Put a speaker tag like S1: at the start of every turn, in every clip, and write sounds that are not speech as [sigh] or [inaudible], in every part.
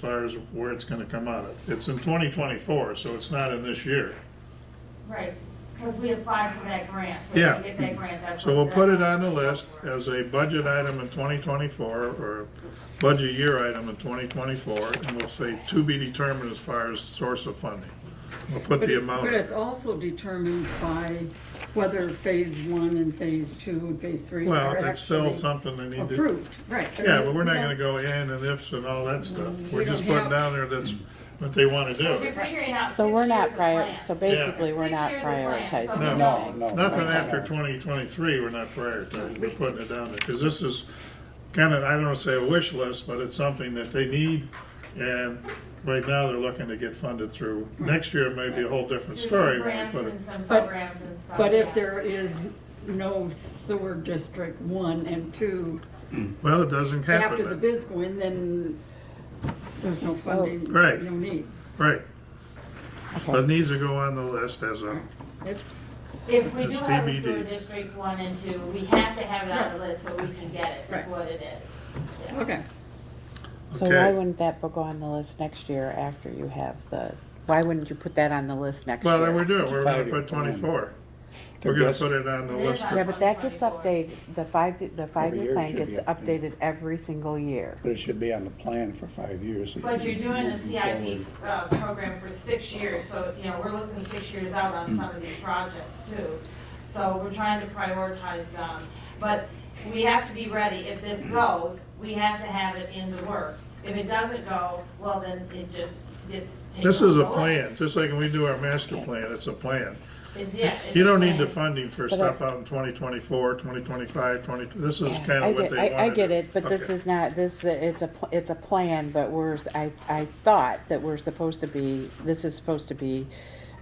S1: far as where it's gonna come out of. It's in 2024, so it's not in this year.
S2: Right, because we applied for that grant, so if
S1: Yeah.
S2: we get that grant, that's.
S1: So we'll
S2: what
S1: put
S2: that
S1: it on the
S2: money's
S1: list
S2: for.
S1: as a budget item in 2024, or budget year item in 2024, and we'll say to be determined as far as source of funding. We'll put
S3: But
S1: the
S3: it-
S1: amount.
S3: But
S1: in.
S3: it's also determined by whether phase one and phase two and phase three are
S1: Well,
S3: actually
S1: that's still something they need to.
S3: Approved, right. I
S1: Yeah,
S3: mean,
S1: but we're not
S3: we
S1: gonna
S3: don't-
S1: go in and ifs and all that stuff.
S3: Mm-hmm. we
S1: We're just
S3: don't
S1: putting
S3: have-
S1: down there that's what they wanna
S2: If you're
S1: do.
S2: figuring out
S4: So
S2: six
S4: we're not
S2: years of
S4: prior,
S2: plans,
S4: so basically, we're
S2: Six
S4: not
S2: years of plans.
S4: prioritizing
S2: No,
S4: anything.
S5: no,
S1: Nothing after 2023, we're not prioritizing, we're putting it down there, because this is kind of, I don't want to say a wish list, but it's something that they need, and right now, they're looking to get funded through. Next year, it may be a whole different
S2: There's some
S1: story when we
S2: grants
S1: put it.
S2: and some
S3: But-
S2: programs and stuff.
S3: But
S2: yeah.
S3: if there is no sewer district one and two,
S1: Well, it doesn't
S3: after the
S1: happen, then.
S3: bids go in, then there's no funding,
S1: Right.
S3: no need.
S1: right. But
S4: Okay.
S1: it needs to go on the list as a,
S3: It's,
S2: If we do
S1: It's
S2: have a
S1: TBD.
S2: sewer district one and two, we have to have it on the list so we can get it, is
S3: Right.
S2: what it is. Yeah.
S3: okay,
S4: So why
S1: okay.
S4: wouldn't that go on the list next year after you have the, why wouldn't you put that on the list next year?
S1: Well, then we do it, we're going to
S5: Five-year
S1: put
S5: plan.
S1: 24. We're going to put it on the
S2: It is
S1: list.
S2: on
S4: Yeah, but that gets
S2: 2024.
S4: updated, the five, the five-year
S5: year
S4: plan
S5: it should
S4: gets
S5: be updated.
S4: updated every single year.
S5: But it should be on the plan for five years.
S2: But you're doing the
S5: Moving
S2: CIP
S5: forward.
S2: uh, program for six years, so, you know, we're looking six years out on some of these projects too. So we're trying to prioritize them. But we have to be ready, if this goes, we have to have it in the works. If it doesn't go, well, then it just gets taken
S1: This is a
S2: off the
S1: plan,
S2: list.
S1: just like when we do our master plan, it's a plan.
S2: It's- yeah, it's
S1: You
S2: a
S1: don't need the
S2: plan.
S1: funding for
S4: But
S1: stuff
S4: I-
S1: out in 2024, 2025, 20, this is
S4: Yeah,
S1: kind
S4: I
S1: of what
S4: get-
S1: they
S4: I-
S1: wanted.
S4: I get it, but this
S1: Okay.
S4: is not, this, it's a, pl- it's a plan, but we're, I, I thought that we're supposed to be, this is supposed to be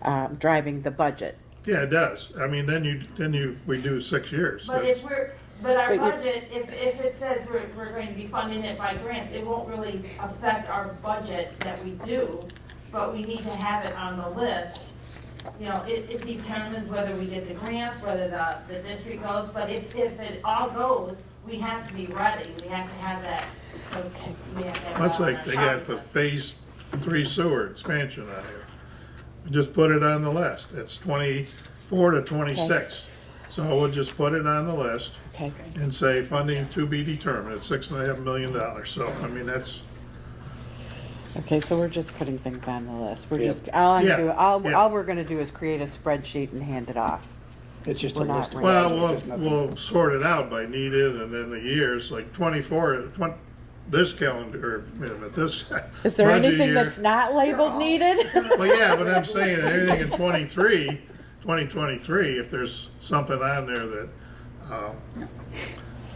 S4: um, driving the budget.
S1: Yeah, it does. I mean, then you, then you, we do six years.
S2: But
S1: That's-
S2: if we're, but our
S4: But you're-
S2: budget, if, if it says we're, we're going to be funding it by grants, it won't really affect our budget that we do, but we need to have it on the list. You know, it, it determines whether we get the grants, whether the, the district goes, but if, if it all goes, we have to be ready, we have to have that, so we have to have.
S1: That's
S2: that on
S1: like they
S2: our
S1: got the
S2: list.
S1: phase three sewer expansion on here. We Just put it on the list. It's 24 to 26. So we'll just put it on the list
S4: Okay,
S1: and say funding to be determined. It's six and a half million dollars. So, I mean, that's,
S4: okay, so we're just putting things on the list. We're
S5: Yeah.
S4: just, all I'm
S1: Yeah,
S4: doing, all,
S1: yeah.
S4: all we're gonna do is create a spreadsheet and hand it off.
S5: It's just a
S4: We're not
S5: list. of
S4: ready.
S1: Well,
S5: projects,
S1: we'll,
S5: there's nothing-
S1: we'll sort it out by needed and then the years, like 24, 20, this calendar, wait a minute, this.
S4: [laughs] Is there
S1: budget
S4: anything
S1: year-
S4: that's not labeled needed? [laughs]
S1: Well, yeah, but I'm saying everything in 23, 2023, if there's something on there that, um,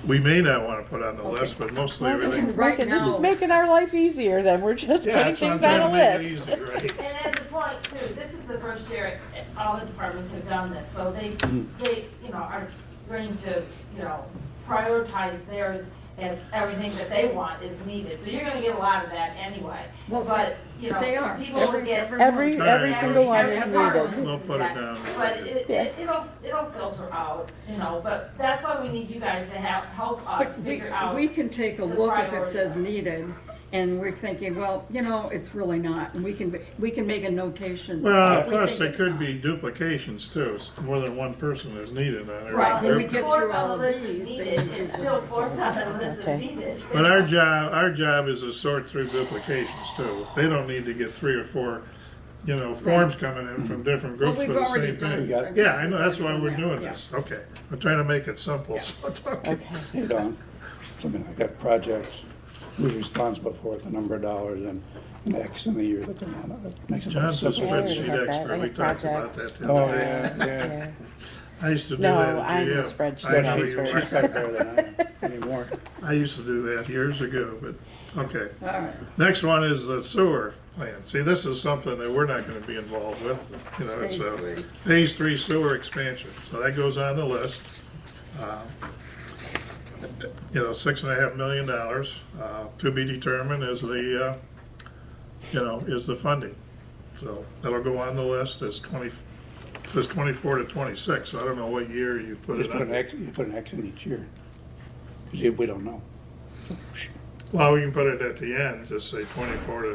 S1: we may not want to put on the list, but mostly
S4: Well, this
S1: everything.
S4: is
S3: Right
S4: making, this is
S3: now-
S4: making our life easier then. We're just
S1: Yeah,
S4: putting
S1: that's what I'm
S4: things
S1: trying
S4: on
S1: to
S4: a
S1: make it
S4: list.
S1: easy,
S4: [laughs]
S1: right?
S2: And at the point too, this is the first year all the departments have done this, so they,
S1: Mm-hmm.
S2: they, you know, are going to, you know, prioritize theirs as everything that they want is needed. So you're gonna get a lot of that anyway,
S3: Well,
S2: but, you know,
S3: they are.
S2: people will
S3: Every-
S2: get.
S3: every
S4: Every,
S3: one's-
S1: All right,
S4: every single one
S2: every
S4: is
S2: department
S4: needed.
S2: will
S1: We'll
S2: do
S1: put it
S2: that.
S1: down.
S2: But it,
S4: Yeah.
S2: it- it'll, it'll filter out, you know, but that's why we need you guys to help, help us
S3: But we,
S2: figure out.
S3: we can take a
S2: the
S3: look if it
S2: priority.
S3: says needed, and we're thinking, well, you know, it's really not, and we can, we can make a notation.
S1: Well,
S3: if
S1: of
S3: we
S1: course,
S3: think
S1: there
S3: it's
S1: could
S3: not.
S1: be duplications too. It's More than one person is needed on there.
S3: Right, when we
S1: There-
S3: get
S2: Fourth
S3: through
S2: on
S3: all
S2: the list
S3: of
S2: is
S3: these, they
S2: needed,
S3: need to-
S2: It's still fourth on the list is
S4: Okay.
S2: needed.
S1: But our job, our job is to sort through duplications too. They don't need to get three or four, you know, forms coming in from different
S3: Well,
S1: groups for
S3: we've
S1: the
S3: already
S1: same thing.
S3: done it.
S1: Yeah, I know, that's why we're
S3: We've already
S1: doing
S3: done that,
S1: this. Okay, I'm trying to make it simple. so don't get-
S4: Okay.
S5: Hey, Don, something like that, projects, who's responsible for it, the number of dollars and and X in the year that they're on it. It makes it more
S1: John's a
S5: simple.
S4: Yeah, I already
S1: spreadsheet
S4: had that,
S1: expert.
S4: like
S1: We talked about
S4: projects.
S1: that the
S5: Oh,
S1: other day.
S5: yeah, yeah.
S4: Yeah.
S1: I used to do
S4: No,
S1: that at
S4: I'm a
S1: GM.
S4: spreadsheet
S1: I know
S5: Yeah, she's
S1: you
S5: she's
S1: are.
S5: better than I am anymore.
S1: I used to do that years ago, but, okay.
S3: All right.
S1: Next one is the sewer plan. See, this is something that we're not gonna be involved with, you know, it's
S3: Phase
S1: a
S3: three.
S1: phase three sewer expansion, so that goes on the list. Um, You know, six and a half million dollars, uh, to be determined is the, uh, you know, is the funding. So that'll go on the list as twenty, it says twenty-four to twenty-six, so I don't know what year you put
S5: Just
S1: it
S5: put an
S1: on.
S5: X, you put an X in each year. See, we don't know.
S1: Well, we can put it at the end, just say twenty-four to